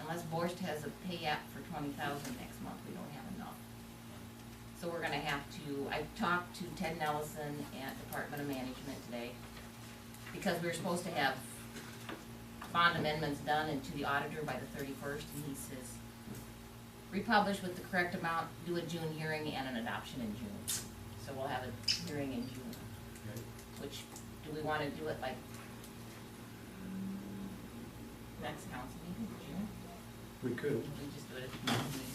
unless Borscht has a payout for twenty thousand next month, we don't have enough. So we're gonna have to, I talked to Ted Nelson at Department of Management today, because we were supposed to have bond amendments done and to the auditor by the thirty-first, and he says, republish with the correct amount, do a June hearing and an adoption in June. So we'll have a hearing in June, Okay. which, do we wanna do it like next council meeting in June? We could, We just do it at the council meeting?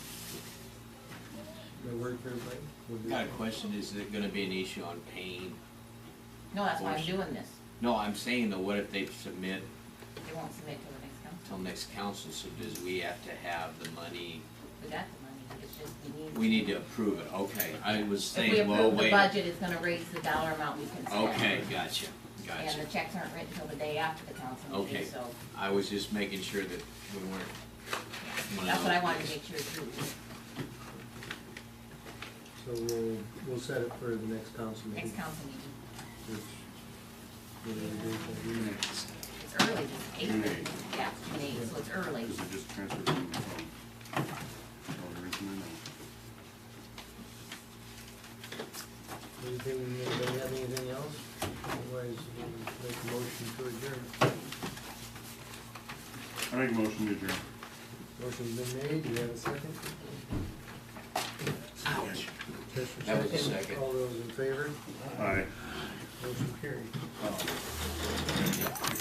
that work for everybody? Would be- Got a question, is it gonna be an issue on pain? No, that's why I'm Borscht. doing this. No, I'm saying though, what if they submit They won't submit till the next council. till next council, so does we have to have the money? We got the money, it's just we need. We need to approve it, okay, I was If saying, we well, approve the wait. budget, it's gonna raise the dollar amount we can spend. Okay, gotcha, And gotcha. the checks aren't written till the day after the council meeting, Okay. so I was just making sure that we weren't. Well, that's what I no. wanted to make sure too. So we'll, we'll set it for the next council meeting. Next council meeting, which we're gonna do for you. it's early, it's June eight, eighth. yeah, June eighth, so it's early. Because it just transferred from the phone. That's all there is in there. Anything, anybody have anything else? Otherwise, we'll make a motion to adjourn. I make a motion to adjourn. Motion's been made, do you have a second? Ouch. Just That was a second. All those in favor, Aye. motion carried.